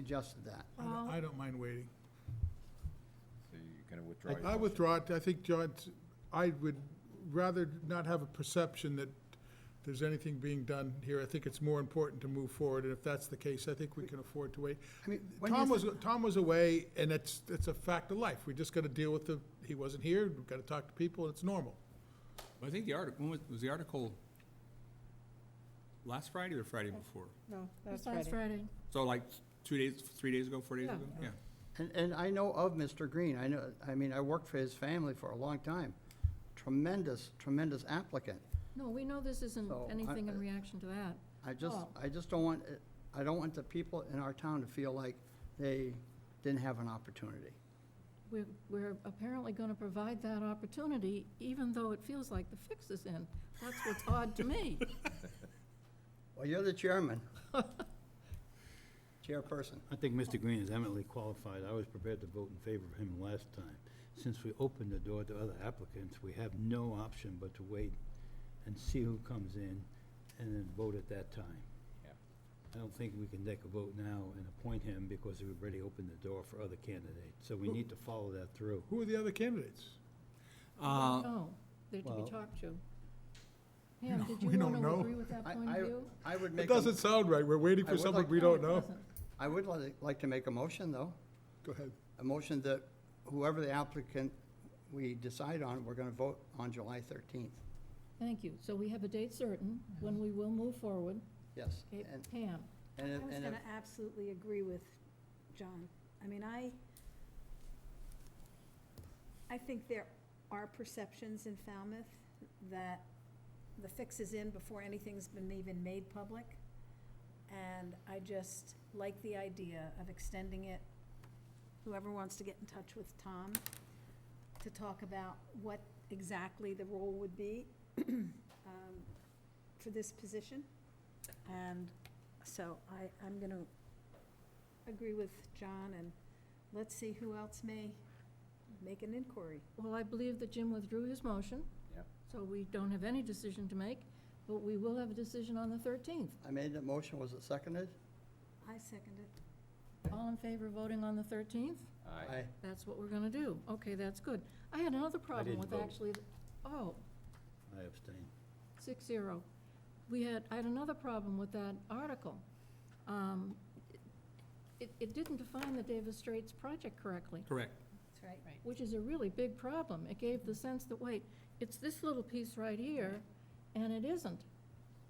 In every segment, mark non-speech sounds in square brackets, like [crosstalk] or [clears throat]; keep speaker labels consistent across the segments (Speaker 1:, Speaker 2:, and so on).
Speaker 1: suggested that.
Speaker 2: I don't- I don't mind waiting.
Speaker 3: So you're gonna withdraw? your
Speaker 2: I
Speaker 3: motion?
Speaker 2: withdraw it, I think John's, I would rather not have a perception that there's anything being done here. I think it's more important to move forward, and if that's the case, I think we can afford to wait.
Speaker 1: I mean, when
Speaker 2: Tom
Speaker 1: is
Speaker 2: was,
Speaker 1: it-
Speaker 2: Tom was away, and it's, it's a fact of life. We just gotta deal with the, he wasn't here, we've gotta talk to people, it's normal.
Speaker 4: I think the article, was, was the article last Friday or Friday before?
Speaker 5: No, that's
Speaker 6: That's
Speaker 5: Friday.
Speaker 6: Friday.
Speaker 4: So like two days, three days ago, four days
Speaker 5: Yeah.
Speaker 4: ago? Yeah.
Speaker 1: And, and I know of Mr. Green, I know, I mean, I worked for his family for a long time. Tremendous, tremendous applicant.
Speaker 6: No, we know this isn't
Speaker 1: So, I-
Speaker 6: anything in reaction to that.
Speaker 1: I just,
Speaker 6: Oh.
Speaker 1: I just don't want, it- I don't want the people in our town to feel like they didn't have an opportunity.
Speaker 6: We're, we're apparently going to provide that opportunity, even though it feels like the fix is in. That's what's odd to
Speaker 2: [laughs]
Speaker 6: me.
Speaker 1: Well, you're the chairman. Chairperson.
Speaker 7: I think Mr. Green is eminently qualified. I was prepared to vote in favor of him last time. Since we opened the door to other applicants, we have no option but to wait and see who comes in and then vote at that time.
Speaker 3: Yeah.
Speaker 7: I don't think we can take a vote now and appoint him because we've already opened the door for other candidates. So we need to follow that through.
Speaker 2: Who are the other candidates?
Speaker 4: Uh,
Speaker 6: No, they're to
Speaker 7: Well-
Speaker 6: be talked to. Pam, did
Speaker 2: we
Speaker 6: you
Speaker 2: don't
Speaker 6: want to
Speaker 2: know.
Speaker 6: agree with that
Speaker 1: I,
Speaker 6: point of
Speaker 1: I,
Speaker 6: view?
Speaker 1: I would
Speaker 2: It
Speaker 1: make, a-
Speaker 2: doesn't sound right, we're waiting
Speaker 1: I
Speaker 2: for
Speaker 1: would
Speaker 2: someone
Speaker 1: like-
Speaker 2: we
Speaker 6: No,
Speaker 2: don't
Speaker 6: it
Speaker 2: know.
Speaker 6: doesn't.
Speaker 1: I would li- like to make a motion, though.
Speaker 2: Go ahead.
Speaker 1: A motion that whoever the applicant we decide on, we're gonna vote on July thirteenth.
Speaker 6: Thank you. So we have a date certain when we will move forward.
Speaker 1: Yes.
Speaker 6: Okay,
Speaker 1: And,
Speaker 6: Pam,
Speaker 1: and,
Speaker 5: I
Speaker 1: if-
Speaker 5: was
Speaker 1: and
Speaker 5: going
Speaker 1: if,
Speaker 5: to absolutely agree with John. I mean, I, I think there are perceptions in Falmouth that the fix is in before anything's been even made public. And I just like the idea of extending it. Whoever wants to get in touch with Tom to talk about what exactly the role would be [clears throat] um, for this position. And so I, I'm going to agree with John, and let's see who else may make an inquiry.
Speaker 6: well, I believe that Jim withdrew his motion.
Speaker 3: Yep.
Speaker 6: So we don't have any decision to make, but we will have a decision on the 13th.
Speaker 1: I made the motion, was it seconded?
Speaker 5: I second it.
Speaker 6: All in favor of voting on the 13th?
Speaker 3: Aye.
Speaker 6: That's what we're gonna do. Okay, that's good. I had another problem
Speaker 7: didn't
Speaker 6: with
Speaker 7: vote.
Speaker 6: actually, oh,
Speaker 7: I abstain.
Speaker 6: six zero. We had, I had another problem with that article. Um, It, it didn't define the Davis Straits project correctly,
Speaker 4: Correct.
Speaker 5: That's right. Right.
Speaker 6: which is a really big problem. It gave the sense that, wait, it's this little piece right here, and it isn't.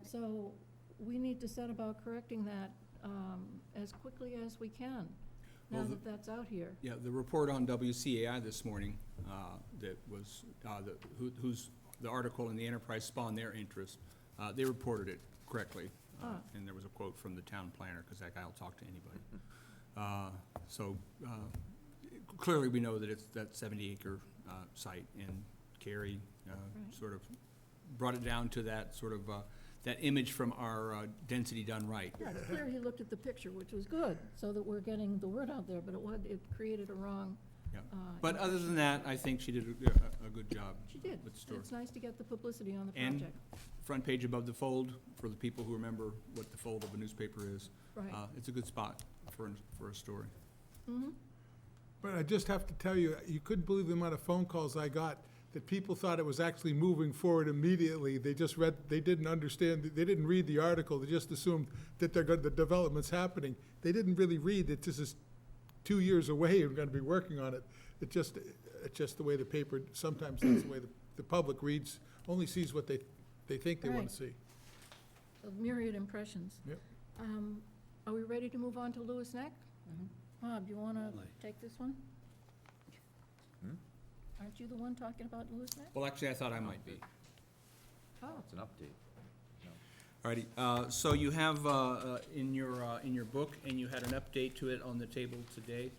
Speaker 6: So we need to set about correcting that um, as quickly as we can, now
Speaker 4: Well, the-
Speaker 6: that that's out here.
Speaker 4: Yeah, the report on WCAI this morning, uh, that was, uh, the, who- who's, the article in the Enterprise spawned their interest. Uh, they reported it correctly. uh,
Speaker 6: Ah.
Speaker 4: And there was a quote from the town planner, because that guy will talk to
Speaker 6: [laughs]
Speaker 4: anybody. Uh, so, uh, clearly, we know that it's that seventy acre, uh, site, and Carrie, uh,
Speaker 6: Right.
Speaker 4: sort of brought it down to that sort of, uh, that image from our, uh, density done right.
Speaker 6: Yeah, it's clear he looked at the picture, which was good, so that we're getting the word out there, but it was, it created a wrong.
Speaker 4: Yeah.
Speaker 6: uh,
Speaker 4: But other than that, I think she did a, a- a good job.
Speaker 6: She did.
Speaker 4: With the story.
Speaker 6: It's nice to get the publicity on the
Speaker 4: And-
Speaker 6: project.
Speaker 4: Front page above the fold, for the people who remember what the fold of a newspaper is.
Speaker 6: Right.
Speaker 4: Uh, It's a good spot for, an- for a story.
Speaker 6: Mhm.
Speaker 2: But I just have to tell you, you couldn't believe the amount of phone calls I got that people thought it was actually moving forward immediately. They just read, they didn't understand, they didn't read the article, they just assumed that they're, gonna- the development's happening. They didn't really read that this is two years away and we're gonna be working on it. It just, it's just the way the paper, sometimes that's the way the, the public reads, only sees what they, they think they wanna
Speaker 6: Right.
Speaker 2: see.
Speaker 6: Of Myriad impressions.
Speaker 2: Yep.
Speaker 6: Um, Are we ready to move on to Lewis Neck? Bob, you want to
Speaker 7: Certainly.
Speaker 6: take this one?
Speaker 3: Hmm?
Speaker 6: Aren't you the one talking about Lewis Neck?
Speaker 4: Well, actually, I thought I might be.
Speaker 6: Oh,
Speaker 3: It's an update.
Speaker 4: Alrighty, uh, so you have, uh, uh, in your, uh, in your book, and you had an update to it on the table today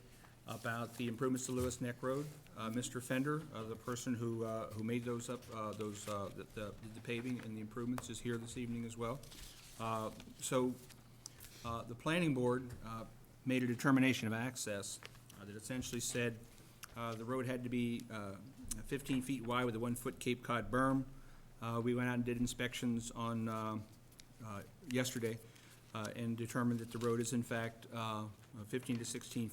Speaker 4: about the improvements to Lewis Neck Road. Uh, Mr. Fender, uh, the person who, uh, who made those up, uh, those, uh, the- the the paving and the improvements is here this evening as well. Uh, So, uh, the planning board uh, made a determination of access uh, that essentially said uh, the road had to be uh, 15 feet wide with a one-foot Cape Cod berm. Uh, We went out and did inspections on, uh, uh, yesterday uh, and determined that the road is in fact uh, uh, 15 to 16